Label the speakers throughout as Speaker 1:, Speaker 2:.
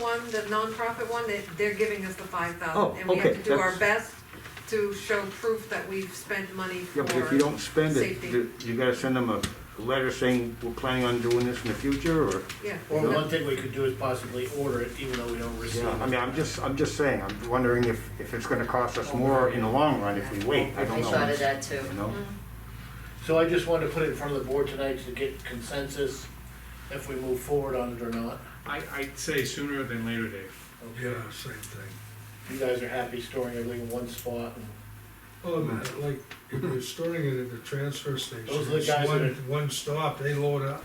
Speaker 1: one, the nonprofit one, they, they're giving us the five
Speaker 2: Oh,
Speaker 1: thousand, and we have
Speaker 2: okay,
Speaker 1: to do our
Speaker 2: that's-
Speaker 1: best to show proof that we've spent money for.
Speaker 2: Yeah, but if you don't spend it,
Speaker 1: Safety.
Speaker 2: th- you gotta send them a letter saying we're planning on doing this in the future, or?
Speaker 1: Yeah.
Speaker 3: Or one thing we could do is possibly order it, even though we don't receive
Speaker 2: I
Speaker 3: it.
Speaker 2: mean, I'm just, I'm just saying, I'm wondering if, if it's gonna cost us more in the long run if we wait, I
Speaker 4: I
Speaker 2: don't know.
Speaker 4: thought of that Mm-hmm. too.
Speaker 2: You know?
Speaker 3: So I just wanted to put it in front of the board tonight to get consensus if we move forward on it or not.
Speaker 5: I, I'd say sooner than later, Dave.
Speaker 3: Okay.
Speaker 6: Yeah, same thing.
Speaker 3: You guys are happy storing everything in one spot and
Speaker 6: Oh, man, like, if you're storing it at the transfer station,
Speaker 3: Those are the
Speaker 6: it's
Speaker 3: guys that
Speaker 6: one,
Speaker 3: are-
Speaker 6: one stop, they load up,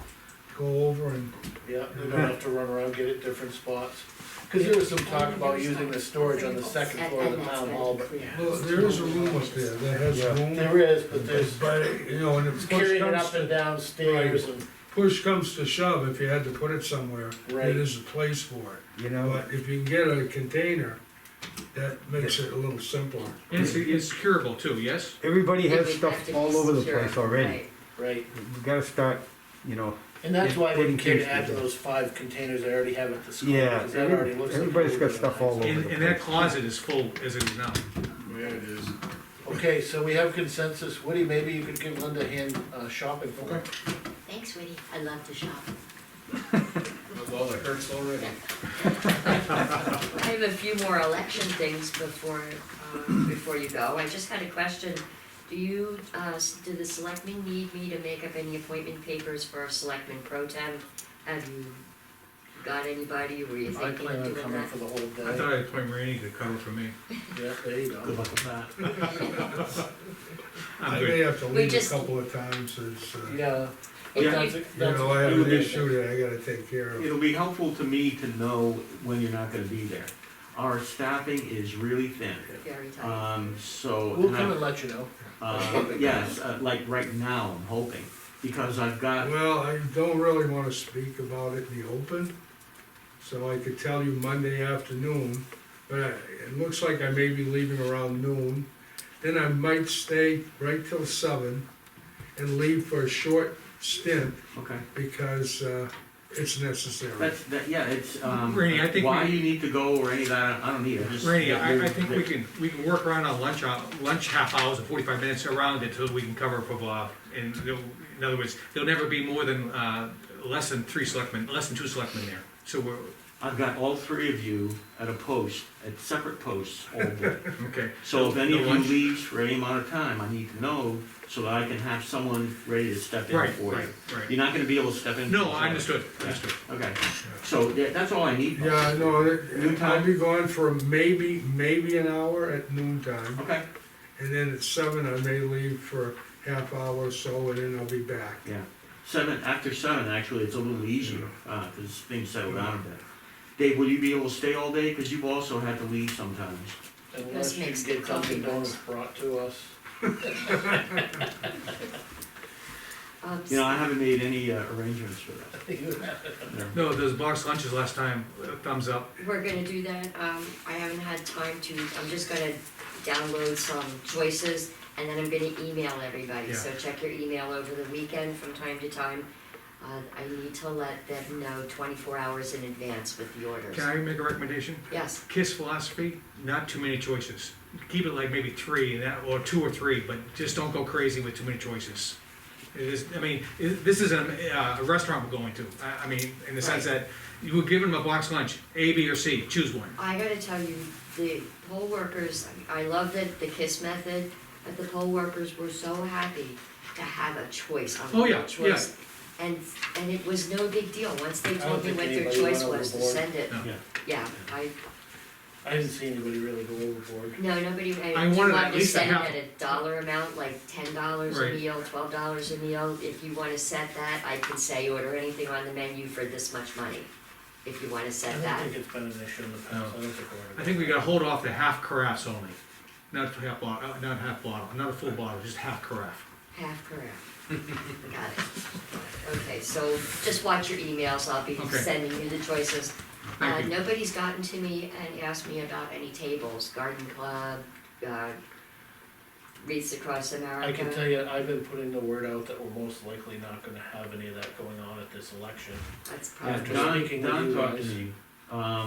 Speaker 6: go over and,
Speaker 3: Yeah, we don't have to run around, get it different spots. Cause there was some talk about using the storage on the second floor of the town hall, but
Speaker 6: well, there is a room up there that has
Speaker 2: Yeah.
Speaker 6: room.
Speaker 3: there is, but there's
Speaker 6: But, you know, and if push
Speaker 3: carrying it
Speaker 6: comes
Speaker 3: up and
Speaker 6: to,
Speaker 3: down stairs and,
Speaker 6: push comes to shove, if you had to put it somewhere,
Speaker 3: Right.
Speaker 6: it is a place for it.
Speaker 2: You know,
Speaker 6: But if you can get a container, that makes it a little simpler.
Speaker 2: Hmm.
Speaker 5: And it's, it's curable too, yes?
Speaker 2: everybody
Speaker 4: It would
Speaker 2: has
Speaker 4: have
Speaker 2: stuff
Speaker 4: to be
Speaker 2: all over the
Speaker 4: secure,
Speaker 2: place already.
Speaker 4: right.
Speaker 3: right.
Speaker 2: We gotta start, you know,
Speaker 3: And that's why they
Speaker 2: Wouldn't
Speaker 3: care
Speaker 2: change
Speaker 3: to add to
Speaker 2: the-
Speaker 3: those five containers I already have at the school,
Speaker 2: yeah,
Speaker 3: cause that already looks like.
Speaker 2: everybody's got
Speaker 3: really
Speaker 2: stuff
Speaker 3: nice.
Speaker 2: all over the
Speaker 5: And,
Speaker 2: place.
Speaker 5: and that closet is full as it is now.
Speaker 3: Okay, so we have consensus. Woody, maybe you could give Linda a hand uh, shopping for her.
Speaker 4: Thanks, Woody, I love to shop.
Speaker 5: Well, it hurts already.
Speaker 4: I have a few more election things before, um, before you go. I just had a question. Do you, uh, s- do the selectmen need me to make up any appointment papers for a selectman pro tem? Have you got anybody, were you
Speaker 3: I
Speaker 4: thinking
Speaker 3: plan
Speaker 4: of
Speaker 3: on
Speaker 4: doing
Speaker 3: coming
Speaker 4: that?
Speaker 3: for the whole day.
Speaker 5: I thought I'd appoint Randy to cover for me.
Speaker 3: Yeah, there you go.
Speaker 6: I
Speaker 5: I'm
Speaker 6: may
Speaker 5: good.
Speaker 6: have to
Speaker 4: We
Speaker 6: leave a
Speaker 4: just-
Speaker 6: couple of times, it's, uh, you
Speaker 3: Yeah.
Speaker 4: If you-
Speaker 3: That's a- that's
Speaker 6: know,
Speaker 3: a-
Speaker 6: I have
Speaker 7: You'll
Speaker 6: an
Speaker 7: get
Speaker 6: issue that I gotta take care of.
Speaker 7: It'll be helpful to me to know when you're not gonna be there. Our staffing is really thin,
Speaker 4: Very
Speaker 2: Uh,
Speaker 4: tight.
Speaker 7: um, so.
Speaker 3: We'll
Speaker 7: and I-
Speaker 3: come and let you know.
Speaker 7: Uh, yes, uh, like right now, I'm hoping, because I've got,
Speaker 6: Well, I don't really wanna speak about it in the open, so I could tell you Monday afternoon, but I- it looks like I may be leaving around noon. Then I might stay right till seven and leave for a short stint
Speaker 7: okay,
Speaker 6: because, uh, it's necessary.
Speaker 7: that's, that, yeah, it's, um,
Speaker 5: Rainey, I think
Speaker 7: why
Speaker 5: we-
Speaker 7: you need to go or any of that, I don't need it. Just-
Speaker 5: Randy, I, I think we can, we can work around on lunch, hou- lunch half hours and forty-five minutes around it till we can cover for Bob. And there'll- in other words, there'll never be more than, uh, less than three selectmen, less than two selectmen there. So we're,
Speaker 7: I've got all three of you at a post, at separate posts all day.
Speaker 5: okay.
Speaker 7: So if
Speaker 5: No-
Speaker 7: any
Speaker 5: no
Speaker 7: of you
Speaker 5: lunch?
Speaker 7: leaves for any amount of time, I need to know so that I can have someone ready to step in
Speaker 5: Right,
Speaker 7: for you.
Speaker 5: right, right.
Speaker 7: You're not gonna be able to step in.
Speaker 5: No, I understood, understood.
Speaker 7: Okay, so yeah, that's all I need.
Speaker 6: Yeah, no,
Speaker 7: Noon
Speaker 6: it- I'll
Speaker 7: time?
Speaker 6: be gone for maybe, maybe an hour at noon time,
Speaker 7: Okay,
Speaker 6: and then at seven I may leave for half hour or so, and then I'll be back.
Speaker 7: yeah. Seven, after seven, actually, it's a little easier, uh, cause things settle down a bit. Dave, will you be able to stay all day? Cause you've also had to leave sometimes.
Speaker 3: Unless you
Speaker 4: makes
Speaker 3: get Dunkin'
Speaker 4: coffee
Speaker 3: Donuts brought to us.
Speaker 4: Um,
Speaker 7: You know, I haven't made any uh, arrangements for that.
Speaker 5: No, those box lunches last time, uh, thumbs up.
Speaker 4: We're gonna do that, um, I haven't had time to, I'm just gonna download some choices, and then I'm gonna email everybody, so check your email over the weekend from time to time. Uh, I need to let them know twenty-four hours in advance with the orders.
Speaker 5: Can I make a recommendation?
Speaker 4: Yes,
Speaker 5: Kiss philosophy, not too many choices. Keep it like maybe three, and that- or two or three, but just don't go crazy with too many choices. It is, I mean, it- this is a, uh, a restaurant we're going to, I, I mean, in the sense that you were given them a box lunch, A, B, or C, choose one.
Speaker 4: I gotta tell you, the poll workers, I love the, the KISS method, but the poll workers were so happy to have a choice, a
Speaker 5: Oh, yeah,
Speaker 4: multiple choice. And, and it was no big deal, once they
Speaker 3: don't
Speaker 4: told me
Speaker 3: think
Speaker 4: what their
Speaker 3: anybody
Speaker 4: choice
Speaker 3: went
Speaker 4: was to
Speaker 3: overboard.
Speaker 4: send it,
Speaker 5: No.
Speaker 7: Yeah.
Speaker 4: yeah, I,
Speaker 3: I didn't see anybody really go overboard.
Speaker 4: No, nobody,
Speaker 5: I
Speaker 4: I, do you
Speaker 5: wanted
Speaker 4: want
Speaker 5: at
Speaker 4: to
Speaker 5: least a
Speaker 4: set it
Speaker 5: half-
Speaker 4: at a dollar amount, like ten dollars a
Speaker 5: Right.
Speaker 4: meal, twelve dollars a meal? If you wanna set that, I can say order anything on the menu for this much money, if you wanna
Speaker 3: I
Speaker 4: set
Speaker 3: don't
Speaker 4: that.
Speaker 3: think it's been an issue in the past. I don't think we're.
Speaker 5: I think we gotta hold off the half carafes only, not half bottle, not half bottle, not a full bottle, just half carafe.
Speaker 4: Half correct. Got it. Okay, so just watch your emails, I'll be
Speaker 5: Okay.
Speaker 4: sending you the choices. Uh,
Speaker 5: Thank you.
Speaker 4: nobody's gotten to me and asked me about any tables, garden club, uh, Reads Across America.
Speaker 3: I can tell you, I've been putting the word out that we're most likely not gonna have any of that going on at this election.
Speaker 4: That's probably.
Speaker 7: Yeah,
Speaker 3: After
Speaker 7: Uh, Don,
Speaker 3: speaking with
Speaker 7: Don
Speaker 3: you
Speaker 7: talked to
Speaker 3: guys.
Speaker 7: me, um,